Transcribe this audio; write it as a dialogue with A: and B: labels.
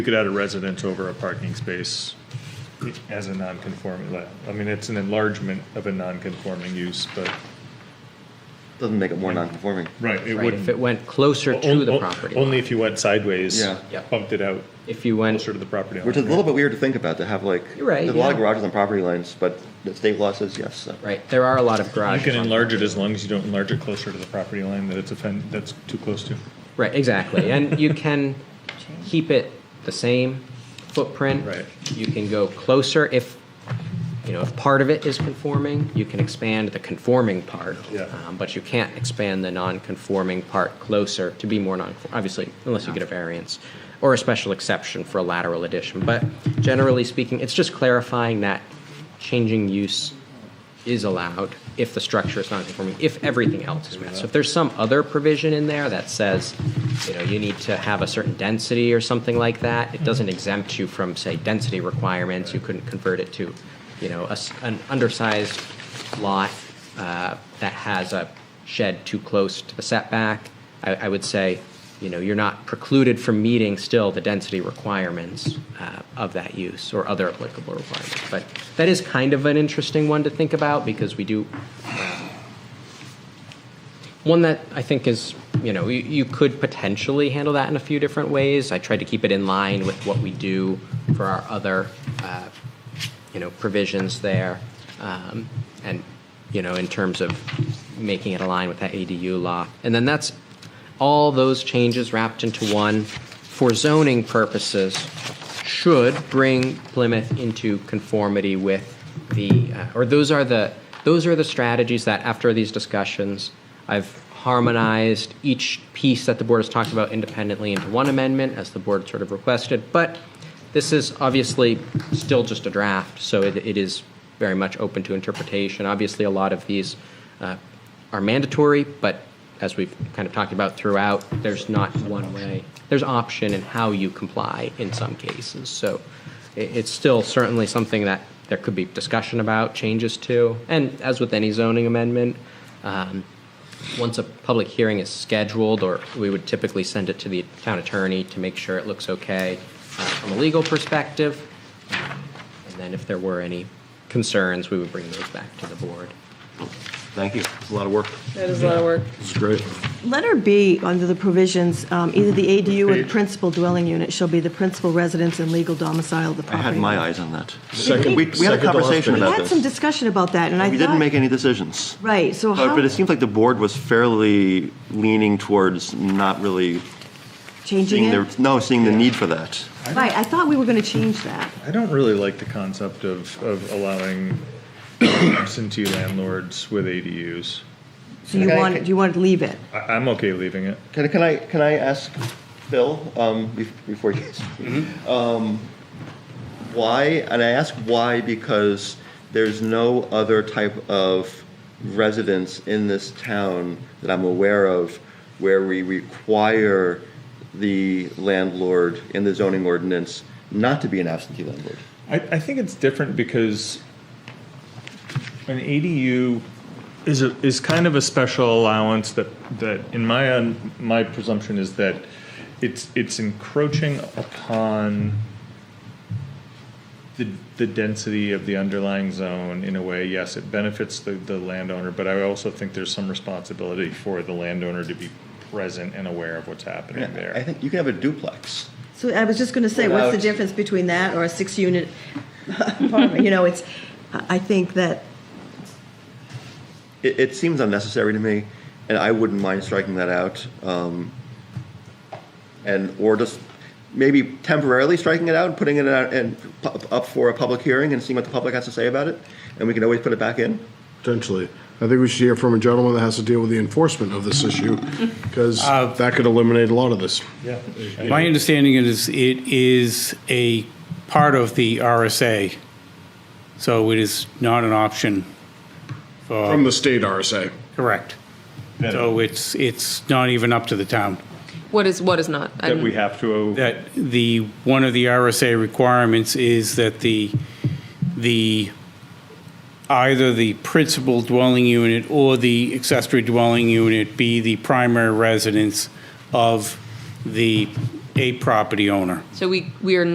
A: You could add a residence over a parking space as a non-conforming, like, I mean, it's an enlargement of a non-conforming use, but.
B: Doesn't make it more non-conforming.
A: Right, it
C: Right,
A: wouldn't.
C: if it went closer to the
A: On-
C: property
A: Only
C: line.
A: if you went sideways.
B: Yeah.
C: Yeah.
A: Bumped it out
C: If you went,
A: closer to the property line.
B: Which is a little bit weird to think about, to have like,
C: You're right,
B: there's a lot of
C: yeah.
B: garages on property lines, but the state law says yes, so.
C: right, there are a lot of
A: You
C: garages.
A: can
C: on-
A: enlarge it as long as you don't enlarge it closer to the property line that it's offend, that's too close to.
C: Right, exactly. And you can keep it the same footprint.
A: Right.
C: You can go closer if, you know, if part of it is conforming, you can expand the conforming part.
A: Yeah.
C: Um, But you can't expand the non-conforming part closer to be more non, obviously, unless you get a variance or a special exception for a lateral addition. But generally speaking, it's just clarifying that changing use is allowed if the structure is non-conforming, if everything else is met. So if there's some other provision in there that says, you know, you need to have a certain density or something like that, it doesn't exempt you from, say, density requirements. You couldn't convert it to, you know, a s an undersized lot uh, that has a shed too close to the setback. I, I would say, you know, you're not precluded from meeting still the density requirements uh, of that use or other applicable requirements. But that is kind of an interesting one to think about because we do, um, one that I think is, you know, you, you could potentially handle that in a few different ways. I tried to keep it in line with what we do for our other, uh, you know, provisions there. Um, and, you know, in terms of making it align with that ADU law. And then that's all those changes wrapped into one for zoning purposes should bring Plymouth into conformity with the, uh, or those are the, those are the strategies that after these discussions, I've harmonized each piece that the board has talked about independently into one amendment as the board sort of requested. But this is obviously still just a draft, so it, it is very much open to interpretation. Obviously, a lot of these uh, are mandatory, but as we've kind of talked about throughout, there's not one way. There's option in how you comply in some cases. So it, it's still certainly something that there could be discussion about, changes to, and as with any zoning amendment, um, once a public hearing is scheduled, or we would typically send it to the town attorney to make sure it looks okay uh, from a legal perspective. And then if there were any concerns, we would bring those back to the board.
B: Thank you. It's a lot of work.
D: That is a lot of work.
B: It's great.
E: Letter B, under the provisions, um, either
B: Mm-hmm.
E: the ADU or the
A: Page.
E: principal dwelling unit shall be the principal residence and legal domicile of the
B: I
E: property.
B: had my eyes on that.
E: Second-
B: We, we had a
F: second to last
B: conversation
F: page.
E: We
B: about
E: had
B: this.
E: some discussion about that, and I
B: We didn't
E: thought-
B: make any decisions.
E: Right, so
B: But,
E: how,
B: but it seems like the board was fairly leaning towards not really
E: changing
B: seeing
E: it?
B: the, no, seeing the need for that.
E: Right, I thought we were going to change that.
A: I don't really like the concept of, of allowing absentee landlords with ADUs.
E: So you
B: Okay.
E: wanted, you wanted to leave it.
A: I, I'm okay leaving it.
B: Can, can I, can I ask Phil, um, bef- before you, um, why, and I ask why because there's no other type of residence in this town that I'm aware of where we require the landlord in the zoning ordinance not to be an absentee landlord.
A: I, I think it's different because an ADU is a, is kind of a special allowance that that in my un, my presumption is that it's it's encroaching upon the the density of the underlying zone in a way. Yes, it benefits the the landowner, but I also think there's some responsibility for the landowner to be present and aware of what's happening there.
B: I think you can have a duplex.
E: So I was just going to say, what's the
B: Without-
E: difference between that or a six-unit apartment? You know, it's, I I think that,
B: It, it seems unnecessary to me, and I wouldn't mind striking that out. Um, and, or just maybe temporarily striking it out and putting it out and pu- up for a public hearing and seeing what the public has to say about it. And we can always put it back in.
F: Potentially. I think we should hear from a gentleman that has to deal with the enforcement of this issue, because that could eliminate a lot of this.
A: yeah.
G: My understanding is it is a part of the RSA, so it is not an option.
F: From the state RSA.
G: Correct. So it's, it's not even up to the town.
D: What is, what is not?
A: that we have to
G: That the, one of the RSA requirements is that the, the, either the principal dwelling unit or the accessory dwelling unit be the primary residence of the
H: a property owner.
G: So we, we are